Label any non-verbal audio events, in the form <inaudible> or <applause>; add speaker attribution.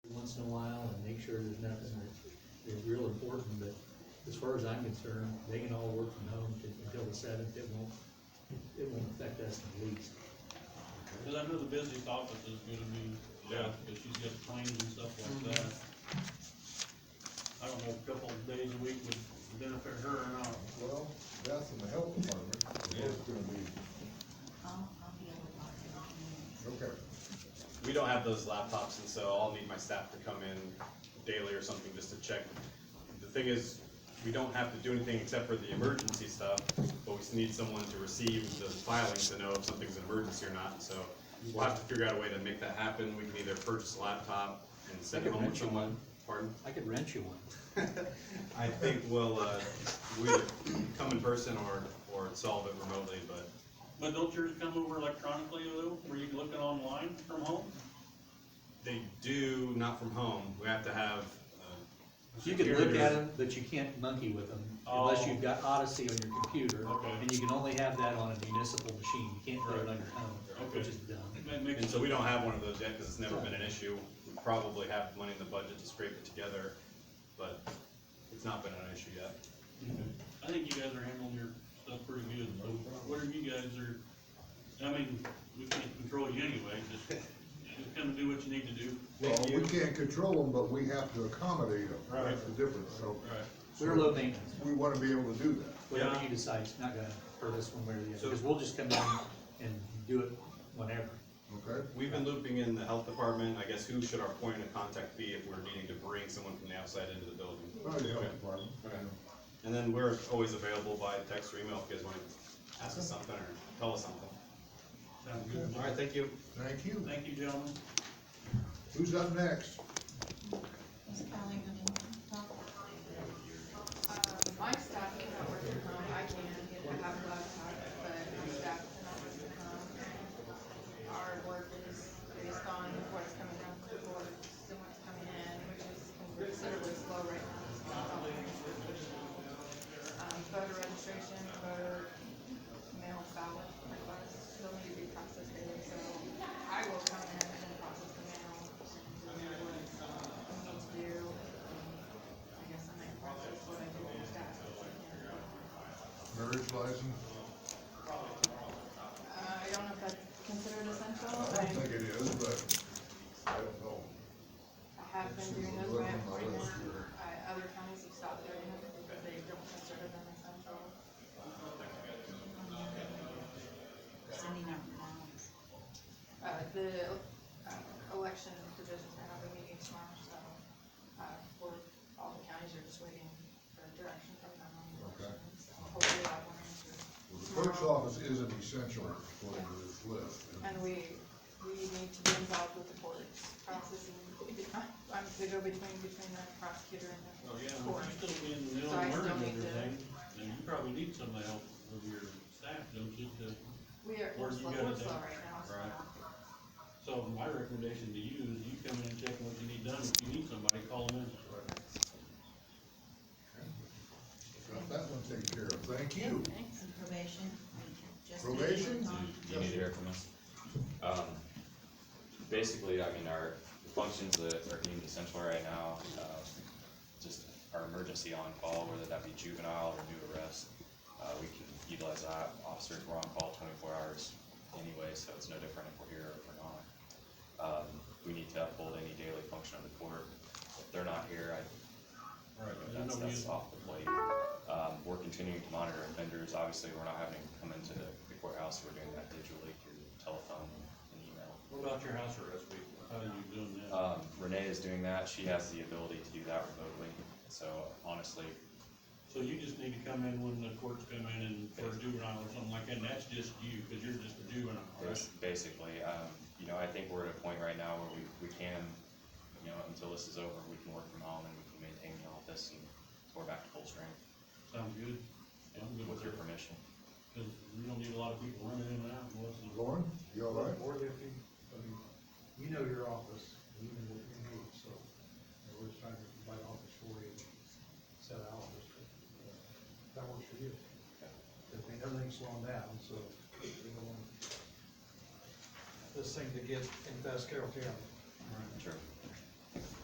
Speaker 1: in a while and make sure there's nothing that is real important, but as far as I'm concerned, they can all work from home t- until the seventh, it won't, it won't affect us in the least.
Speaker 2: Cause I know the busiest office is gonna be, yeah, because she's got claims and stuff like that. I don't know, a couple of days a week would benefit her or not.
Speaker 3: Well, that's in the health department, it's gonna be,
Speaker 4: I'll, I'll be able to talk to them.
Speaker 3: okay.
Speaker 5: We don't have those laptops, and so I'll need my staff to come in daily or something just to check. The thing is, we don't have to do anything except for the emergency stuff, but we just need someone to receive those filings to know if something's an emergency or not, so we'll have to figure out a way to make that happen. We can either purchase a laptop and send it home with someone. Pardon?
Speaker 1: I could rent you one.
Speaker 5: I think we'll, uh, we either come in person or, or solve it remotely, but
Speaker 2: But don't yours come over electronically though, where you can look it online from home?
Speaker 5: they do, not from home, we have to have, uh,
Speaker 1: You can look at
Speaker 5: Computers.
Speaker 1: them, but you can't monkey with them unless
Speaker 2: Oh.
Speaker 1: you've got Odyssey on your computer.
Speaker 2: Okay.
Speaker 1: And you can only have that on a municipal machine, you can't do it on your own,
Speaker 2: Okay.
Speaker 1: which is dumb.
Speaker 2: That makes
Speaker 5: And so we don't have one of those yet, cause it's never been an issue. We probably have money in the budget to scrape it together, but it's not been an issue yet.
Speaker 2: I think you guys are handling your stuff pretty good, so whatever you guys are, I mean, we can't control you anyway, just, just come and do what you need to do.
Speaker 3: Well,
Speaker 5: Thank
Speaker 3: we
Speaker 5: you.
Speaker 3: can't control them, but we have to accommodate them,
Speaker 2: Right.
Speaker 3: that's the difference, so
Speaker 2: Right.
Speaker 1: We're low maintenance,
Speaker 3: we wanna be able to do that.
Speaker 1: whatever
Speaker 2: Yeah.
Speaker 1: you decide, it's not gonna hurt us one way or the other,
Speaker 5: So-
Speaker 1: because we'll just come in and do it whenever.
Speaker 3: Okay,
Speaker 5: We've been looping in the health department, I guess who should our point of contact be if we're needing to bring someone from the outside into the building?
Speaker 3: Right, the health
Speaker 5: Okay.
Speaker 3: department.
Speaker 5: And then we're always available by text or email if you guys wanna ask us something or tell us something.
Speaker 2: Sounds good.
Speaker 5: Alright, thank you.
Speaker 3: Thank you.
Speaker 2: Thank you, gentlemen.
Speaker 3: Who's up next?
Speaker 4: Is Kelly gonna talk?
Speaker 6: Um, my staff cannot work from home, I can, if I have a laptop, but my staff cannot work from home. Our work is based on what's coming out of the board and what's coming in, which is considerably slow right now. It's not all very efficient. Um, voter registration, voter mail ballot requests, still need to be processed daily, so I will come in and process the mail and do what I need to do. I guess I might process what I do with that.
Speaker 3: Marriage license?
Speaker 6: Oh, Uh, I don't know if that's considered essential,
Speaker 3: I
Speaker 6: I,
Speaker 3: don't think it is, but I don't know.
Speaker 6: I have been doing those by appointment, I, other counties have stopped doing them, because they don't consider them essential.
Speaker 4: Sending out forms.
Speaker 6: Uh, the, uh, election divisions are having meeting tomorrow, so, uh, we're, all the counties are just waiting for direction from them on the
Speaker 3: Okay.
Speaker 6: election. So Hopefully that will answer.
Speaker 3: Well, The clerk's office is an essential according to this list.
Speaker 6: And we, we need to be involved with the courts processing, <laughs> I'm the go-between between the prosecutor and
Speaker 2: Oh, yeah,
Speaker 6: the
Speaker 2: you
Speaker 6: court.
Speaker 2: still be in the middle
Speaker 6: So I
Speaker 2: of
Speaker 6: still
Speaker 2: learning
Speaker 6: need to-
Speaker 2: everything, and you probably need some help of your staff, don't you, to,
Speaker 6: We are,
Speaker 2: Or
Speaker 6: we're
Speaker 2: you
Speaker 6: slow,
Speaker 2: gotta
Speaker 6: we're slow
Speaker 2: do-
Speaker 6: right now, so.
Speaker 2: right. so my recommendation to you is you come in and check what you need done, if you need somebody, call them in.
Speaker 3: Got that one taken care of, thank you.
Speaker 4: And probation. we just-
Speaker 3: Probation?
Speaker 7: you need to hear from us. Um, basically, I mean, our the functions that are deemed essential right now, um, just our emergency on-call, whether that be juvenile or new arrest, uh, we can utilize that, officers were on call twenty-four hours anyway, so it's no different if we're here or if we're not. Um, we need to uphold any daily function of the court, if they're not here, I,
Speaker 2: Right.
Speaker 7: you
Speaker 2: There's
Speaker 7: know, that's,
Speaker 2: no
Speaker 7: that's
Speaker 2: reason,
Speaker 7: off the plate. Um, we're continuing to monitor offenders, obviously, we're not having them come into the the courthouse, we're doing that digitally through telephone and email.
Speaker 2: what about your house arrest week, how are you doing that?
Speaker 7: Um, Renee is doing that, she has the ability to do that remotely, so honestly,
Speaker 2: So you just need to come in when the courts come in and for a juvenile or something like that, and that's just you, cause you're just a juvenile, right?
Speaker 7: bas- basically, um, you know, I think we're at a point right now where we, we can, you know, until this is over, we can work from home and we can maintain the office and we're back to full strength,
Speaker 2: Sounds good? I'm good
Speaker 7: with your
Speaker 2: it.
Speaker 7: permission.
Speaker 2: Cause we don't need a lot of people running in and out, unless it's-
Speaker 3: Lauren, you all right?
Speaker 8: Or if you, I mean, you know your office, and you know what you need, so, you know, we're just trying to provide office for you, set out, just, uh, that works for you. I mean, everything's slowing down, so, you don't want this thing to get in fast Carroll County.
Speaker 7: Sure.